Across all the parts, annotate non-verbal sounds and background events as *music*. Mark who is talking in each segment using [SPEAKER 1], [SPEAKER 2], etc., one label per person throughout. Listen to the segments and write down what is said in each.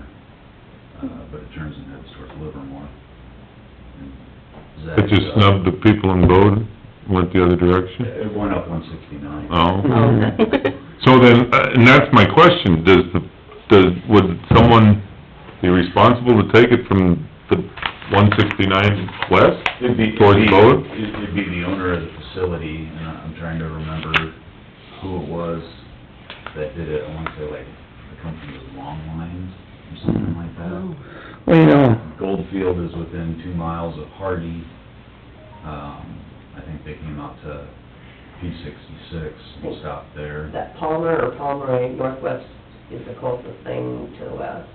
[SPEAKER 1] Uh, it turns and heads towards Livermore. And
[SPEAKER 2] It
[SPEAKER 1] zags
[SPEAKER 2] just
[SPEAKER 1] up.
[SPEAKER 2] snubbed the people in Bowden, went the other direction?
[SPEAKER 1] It went up one sixty-nine.
[SPEAKER 2] Oh.
[SPEAKER 3] Oh.
[SPEAKER 2] So then, uh, and that's my question, does the, does, would someone be responsible to take it from the one sixty-nine west?
[SPEAKER 1] It'd be- it'd
[SPEAKER 2] Towards
[SPEAKER 1] be-
[SPEAKER 2] Bowden?
[SPEAKER 1] It'd it'd be the owner of the facility, and I- I'm trying to remember who it was that did it, I wanna say like, the company was Longline or something like
[SPEAKER 3] Oh.
[SPEAKER 1] that.
[SPEAKER 3] Well, you know,
[SPEAKER 1] Goldfield is within two miles of Hardy, um, I think they came out to P sixty-six and stopped there.
[SPEAKER 4] That Palmer or Pomeroy Northwest is the closest thing to the west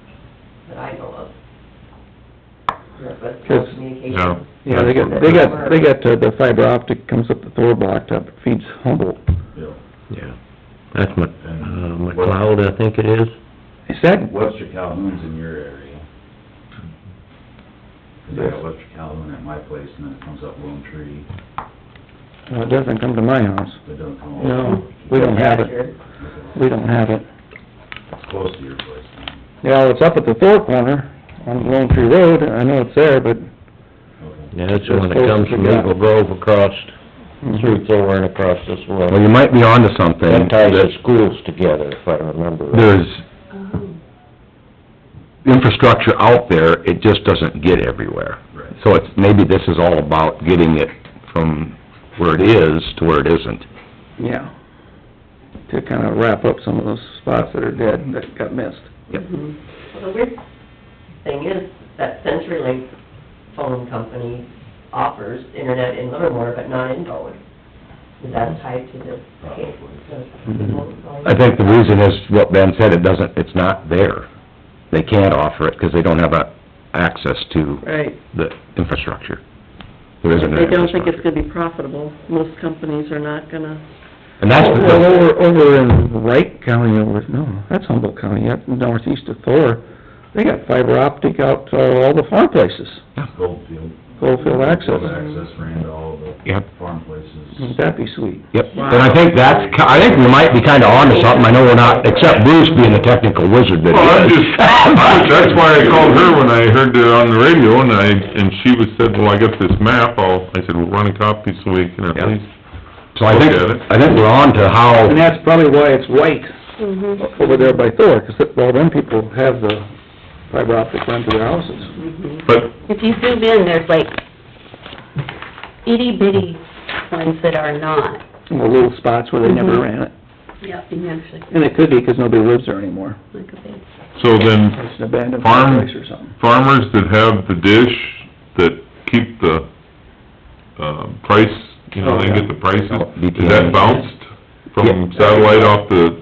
[SPEAKER 4] that I know of. Northwest
[SPEAKER 3] Yes.
[SPEAKER 4] Communications.
[SPEAKER 2] Yeah.
[SPEAKER 3] yeah, they got, they got, they got uh, the fiber optic comes up the Thor block top, feeds Humboldt.
[SPEAKER 1] Bill.
[SPEAKER 5] Yeah, that's Mc, uh,
[SPEAKER 1] And-
[SPEAKER 5] McLeod, I think it is.
[SPEAKER 3] Is that,
[SPEAKER 1] Webster Calhoun's in your area. 'Cause I got Webster Calhoun at my place, and then it comes up Lone Tree,
[SPEAKER 3] well, it doesn't come to my house.
[SPEAKER 1] it doesn't come over.
[SPEAKER 3] No, we don't have it, we don't have it.
[SPEAKER 1] It's close to your place then.
[SPEAKER 3] Yeah, it's up at the Thor corner on Lone Tree Road, I know it's there, but
[SPEAKER 1] Okay.
[SPEAKER 5] Yeah, that's the one that comes from Eagle Grove across, through Thor and across this
[SPEAKER 6] Mm-hmm. Well, you
[SPEAKER 5] road.
[SPEAKER 6] might be onto something.
[SPEAKER 5] That ties the schools together, if I remember right.
[SPEAKER 6] There's infrastructure out there, it just doesn't get everywhere.
[SPEAKER 1] Right.
[SPEAKER 6] So it's, maybe this is all about getting it from where it is to where it isn't.
[SPEAKER 3] yeah. To kind of wrap up some of those spots that are dead, that got missed.
[SPEAKER 4] Mhm. Well, the weird thing is, that CenturyLink phone company offers internet in Livermore, but not in Bowen. Is that tied to this case?
[SPEAKER 6] I think the reason is what Ben said, it doesn't, it's not there. They can't offer it because they don't have a access to
[SPEAKER 7] Right.
[SPEAKER 6] the infrastructure. There isn't an
[SPEAKER 7] They don't think it's
[SPEAKER 6] infrastructure.
[SPEAKER 7] gonna be profitable. Most companies are not gonna,
[SPEAKER 6] And that's
[SPEAKER 3] Well,
[SPEAKER 6] the,
[SPEAKER 3] over, over in Wright County, over, no, that's Humboldt County, up northeast of Thor, they got fiber optic out to all the farm places,
[SPEAKER 1] Goldfield.
[SPEAKER 3] Goldfield Access.
[SPEAKER 1] Goldfield
[SPEAKER 3] Mm-hmm.
[SPEAKER 1] Access ran to all the
[SPEAKER 6] Yep.
[SPEAKER 1] farm places.
[SPEAKER 3] Wouldn't that be sweet?
[SPEAKER 6] yep, and I think that's, ki- I think we might be kinda onto something, I know we're not, except Bruce being the technical wizard that he is.
[SPEAKER 2] Well, I'm just, *laughs* that's why I called her when I heard it on the radio, and I, and she was said, well, I got this map, I'll, I said, well, run a copy so we can at
[SPEAKER 6] Yeah.
[SPEAKER 2] least
[SPEAKER 6] So I think,
[SPEAKER 2] Look at it.
[SPEAKER 6] I think we're on to how,
[SPEAKER 3] And that's probably why it's white over there by Thor, 'cause it- all them people have the fiber optic run to their houses.
[SPEAKER 4] Mm-hmm.
[SPEAKER 2] But
[SPEAKER 8] If you zoom in, there's like itty bitty ones that are not.
[SPEAKER 3] In the little spots where they never
[SPEAKER 8] Mhm.
[SPEAKER 3] ran it.
[SPEAKER 8] Yep. You can actually
[SPEAKER 3] And it could be 'cause nobody lives there anymore.
[SPEAKER 8] click a bit.
[SPEAKER 2] So then,
[SPEAKER 3] It's an abandoned
[SPEAKER 2] Farm-
[SPEAKER 3] place or something.
[SPEAKER 2] farmers that have the dish, that keep the, uh, price, you know, they get the prices, is that bounced from satellite off the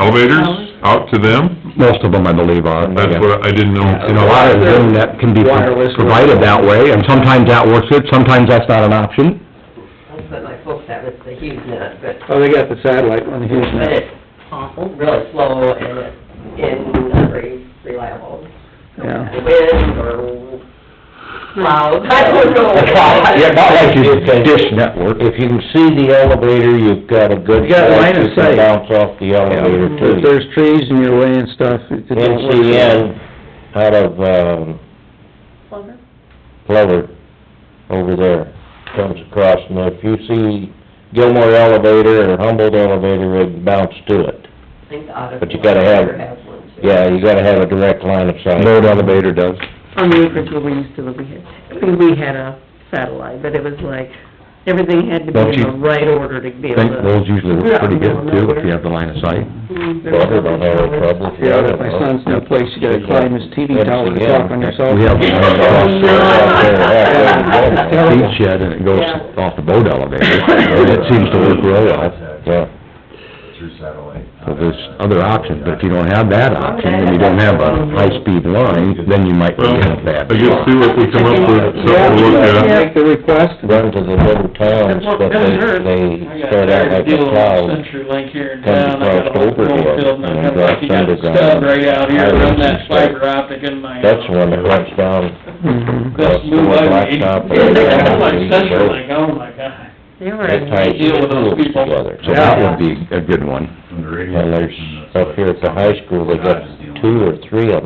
[SPEAKER 2] elevators out to them?
[SPEAKER 6] most of them, I believe, are.
[SPEAKER 2] That's what, I didn't
[SPEAKER 6] And a
[SPEAKER 2] know.
[SPEAKER 6] lot of them that can be
[SPEAKER 3] Wireless.
[SPEAKER 6] provided that way, and sometimes that works good, sometimes that's not
[SPEAKER 5] *laughs*
[SPEAKER 6] an option.
[SPEAKER 4] That's what my folks have, it's the huge net, but
[SPEAKER 3] Oh, they got the satellite one, here's
[SPEAKER 4] But
[SPEAKER 3] that.
[SPEAKER 4] it's awful, really slow, and it's in not very reliable.
[SPEAKER 3] Yeah.
[SPEAKER 4] Wind or clouds, I don't know.
[SPEAKER 6] Yeah, not like your dish network.
[SPEAKER 5] If you can see the elevator, you've got a good
[SPEAKER 3] You got
[SPEAKER 5] shot,
[SPEAKER 3] line of
[SPEAKER 5] you
[SPEAKER 3] sight.
[SPEAKER 5] can bounce off the elevator
[SPEAKER 3] If
[SPEAKER 5] too.
[SPEAKER 3] there's trees in your way and stuff, it it don't work.
[SPEAKER 5] NCN out of, um,
[SPEAKER 8] Clover?
[SPEAKER 5] Plover, over there, comes across, and if you see Gilmore Elevator or Humboldt Elevator, it bounce to it.
[SPEAKER 4] I think the auto.
[SPEAKER 5] But you gotta have-
[SPEAKER 4] Has one too.
[SPEAKER 5] Yeah, you gotta have a direct line of sight.
[SPEAKER 6] Load elevator does.
[SPEAKER 7] on the acreage where we used to live, we had, I mean, we had a satellite, but it was like, everything had to be
[SPEAKER 6] Don't
[SPEAKER 7] in
[SPEAKER 6] you-
[SPEAKER 7] the right order to be
[SPEAKER 6] I
[SPEAKER 7] able
[SPEAKER 6] think
[SPEAKER 7] to...
[SPEAKER 6] those usually work pretty good too, if you have the line of sight.
[SPEAKER 7] Mm, there was
[SPEAKER 5] Probably don't have a
[SPEAKER 7] nothing
[SPEAKER 5] problem.
[SPEAKER 3] Yeah, but my son's new place, you gotta climb his TV tower to talk on your cell
[SPEAKER 6] We have
[SPEAKER 3] phone.
[SPEAKER 6] the
[SPEAKER 5] *laughs*
[SPEAKER 6] one that
[SPEAKER 3] Yeah.
[SPEAKER 6] goes seat shed and it goes
[SPEAKER 7] Yeah.
[SPEAKER 6] off the boat elevator, and it seems to work real well.
[SPEAKER 5] Yeah,
[SPEAKER 1] Through satellite.
[SPEAKER 6] So there's other options, but if you don't have that option, and you don't have a high-speed line, then you might
[SPEAKER 2] Well,
[SPEAKER 6] run out
[SPEAKER 2] I
[SPEAKER 6] bad.
[SPEAKER 2] guess see what we come up with,
[SPEAKER 3] Yeah,
[SPEAKER 2] something to look
[SPEAKER 3] you
[SPEAKER 2] at.
[SPEAKER 3] Make the request,
[SPEAKER 5] run to the little towns, but they, they start out like a cloud.
[SPEAKER 9] Century Link here in
[SPEAKER 5] Comes
[SPEAKER 9] town, I got a
[SPEAKER 5] across
[SPEAKER 9] whole
[SPEAKER 5] over here
[SPEAKER 9] field, and I
[SPEAKER 5] and
[SPEAKER 9] got like, you got a
[SPEAKER 5] across
[SPEAKER 9] stub
[SPEAKER 5] underground.
[SPEAKER 9] right out here, run that
[SPEAKER 5] Islands and stuff.
[SPEAKER 9] fiber optic in my.
[SPEAKER 5] That's the one that runs down.
[SPEAKER 3] Mm-hmm.
[SPEAKER 9] Best move I've made.
[SPEAKER 5] Blacktop.
[SPEAKER 9] *laughs* I'm like Century Link, oh my god.
[SPEAKER 7] They were
[SPEAKER 5] They
[SPEAKER 7] in
[SPEAKER 5] tie
[SPEAKER 7] late
[SPEAKER 9] Deal with those
[SPEAKER 5] schools
[SPEAKER 9] people.
[SPEAKER 5] together.
[SPEAKER 6] So that would be a good one.
[SPEAKER 1] From the radio.
[SPEAKER 5] And there's,
[SPEAKER 1] station, that's
[SPEAKER 5] up
[SPEAKER 1] what
[SPEAKER 5] here at the high school, they got
[SPEAKER 1] Dodge is dealing with.
[SPEAKER 5] two or three of